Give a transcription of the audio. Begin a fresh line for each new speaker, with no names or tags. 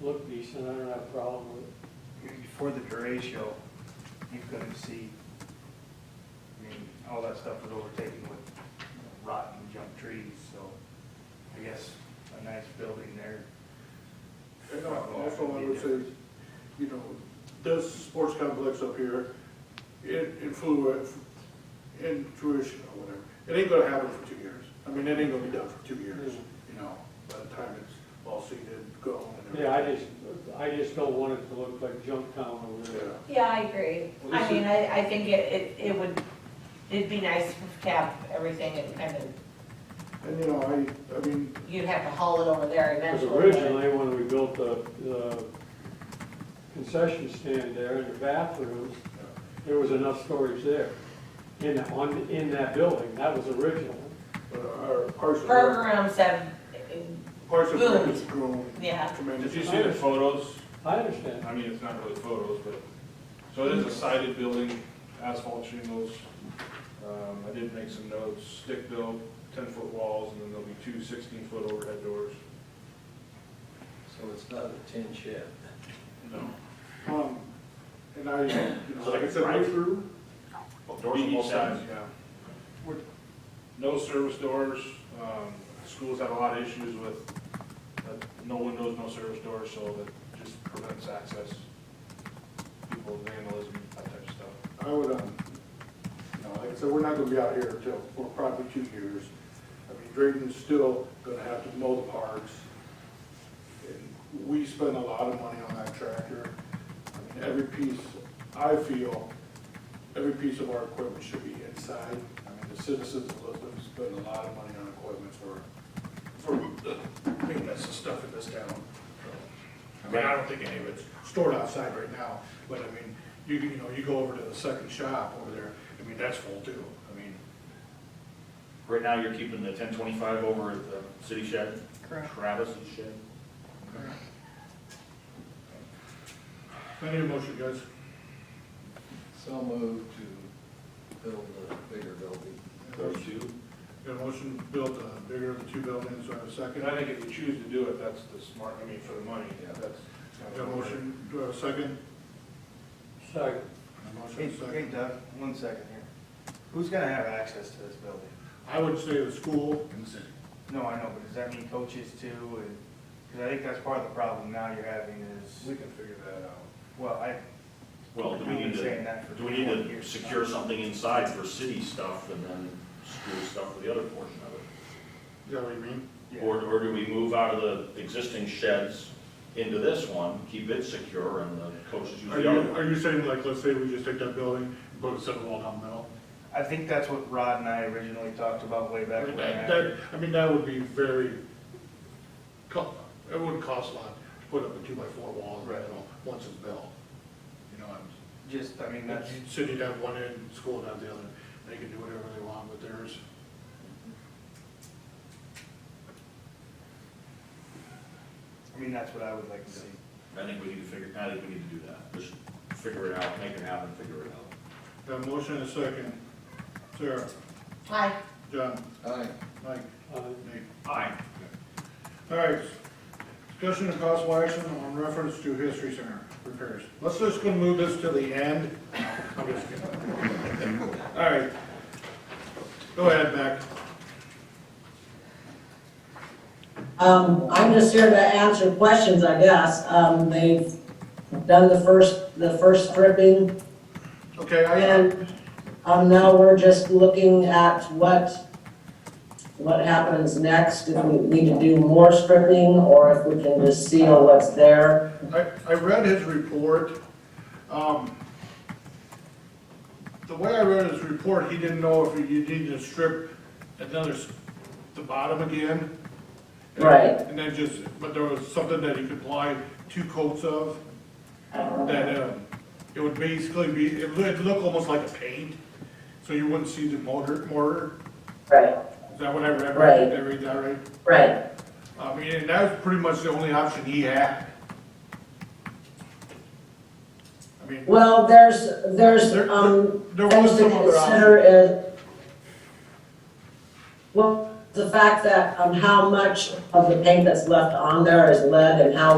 look decent, I don't have a problem with it.
For the duratio, you couldn't see, I mean, all that stuff was overtaken with rotten junk trees, so I guess a nice building there.
And uh, also, I would say, you know, this sports complex up here, it influence, intuition or whatever, it ain't gonna happen for two years. I mean, it ain't gonna be done for two years, you know, by the time it's all seeded, gone and everything.
Yeah, I just, I just don't want it to look like junk town over there.
Yeah,
Yeah, I agree.
Well,
I
this is-
mean, I, I think it, it, it would, it'd be nice to have everything and kind of,
and you know, I, I mean,
you'd have to haul it over there
Because
eventually. but-
originally, when we built the, the concession stand there and the bathrooms, there was enough storage there in, that- on, in that building, that was original.
but our parks and Rec,
Programs have,
parks and Rec has
Boomed.
grown
yeah,
Did
tremendously.
you see the photos?
I understand.
I mean, it's not really photos, but, so it is a sided building, asphalt shingles. Um, I did make some notes, stick built, ten-foot walls, and then there'll be two 16 sixteen-foot overhead doors.
So it's not a tin shed.
Um, and I, you know, like I said, I through,
Oh, Doors on both sides, yeah.
What-
No service doors, um, schools have a lot of issues with, uh, no windows, no service doors, so that just prevents access. People vandalism, that type of stuff.
I would, um, you know, like I said, we're not gonna be out here until, for probably two years. I mean, Drayton's still gonna have to mow the parks. And we spend a lot of money on that tractor. I mean, every piece, I feel, every piece of our equipment should be inside. I mean, the citizens of Lisbon spend a lot of money on equipment for, for the maintenance and stuff in this town. I mean, I don't think any of it's stored outside right now, but I mean, you, can- you know, you go over to the second shop over there, I mean, that's full too, I mean.
Right now, you're keeping the ten twenty-five over at the city shed,
Correct.
Travis's shed.
I need a motion, guys.
So moved to build a bigger building.
two.
Got a motion to build the bigger of the two buildings, do I have a
And
second?
I think if you choose to do it, that's the smart, I mean, for the money,
Yeah.
that's. not
Got a motion, do I have a second?
Sorry.
Got a
Hey,
Motion,
hey
second.
Doug, one second here. Who's gonna have access to this building?
I would say the school,
No, I know, but does that mean coaches too? And, cause I think that's part of the problem now you're having
We
is,
can figure that out.
well, I,
Well, do we
I've been
need
saying
to,
that for
do we need
21
to
years.
secure something inside for city stuff and then school stuff for the other portion of it?
is that what you mean?
Yeah.
Or, or do we move out of the existing sheds into this one, keep it secure and the coaches use
Are
the other
you,
one?
are you saying like, let's say we just take that building, put a seven wall down the middle?
I think that's what Rod and I originally talked about way
I
back
mean,
when.
that, that- I mean, that would be very, co- it wouldn't cost a lot to put up a two by four wall, you
Right.
know, once it's built. You know, I'm,
Just, I mean, that's,
city would have one end, school would have the other, they can do whatever they want with theirs.
I mean, that's what I would like to see.
I think we need to figure, I think we need to do that, just figure it out, make it happen, figure it out.
Got a motion and a second. Sarah,
Hi,
John,
Aye.
Mike,
Uh,
Nate.
Aye.
All right, discussion and possible action on reference to history center repairs. Let's just go move this to the end. I'm just kidding. All right. Go ahead, Beck.
Um, I'm just here to answer questions, I guess. Um, they've done the first, the first stripping,
Okay, I,
and, um, now we're just looking at what, what happens next, if we need to do more stripping, or if we can just seal what's there.
I, I read his report. Um, The way I read his report, he didn't know if you need to strip another, s- the bottom again.
Right.
And then just, but there was something that he could apply two coats of, that, um, it would basically be, it would look almost like a paint, so you wouldn't see the mortar, mortar.
Right,
Is that what I read?
Right.
Did I read that right?
right.
I mean, and that was pretty much the only option he had. I mean,
Well, there's, there's,
There-
um,
there
things
was
to
some other option.
consider is, well, the fact that, um, how much of the paint that's left on there is lead and how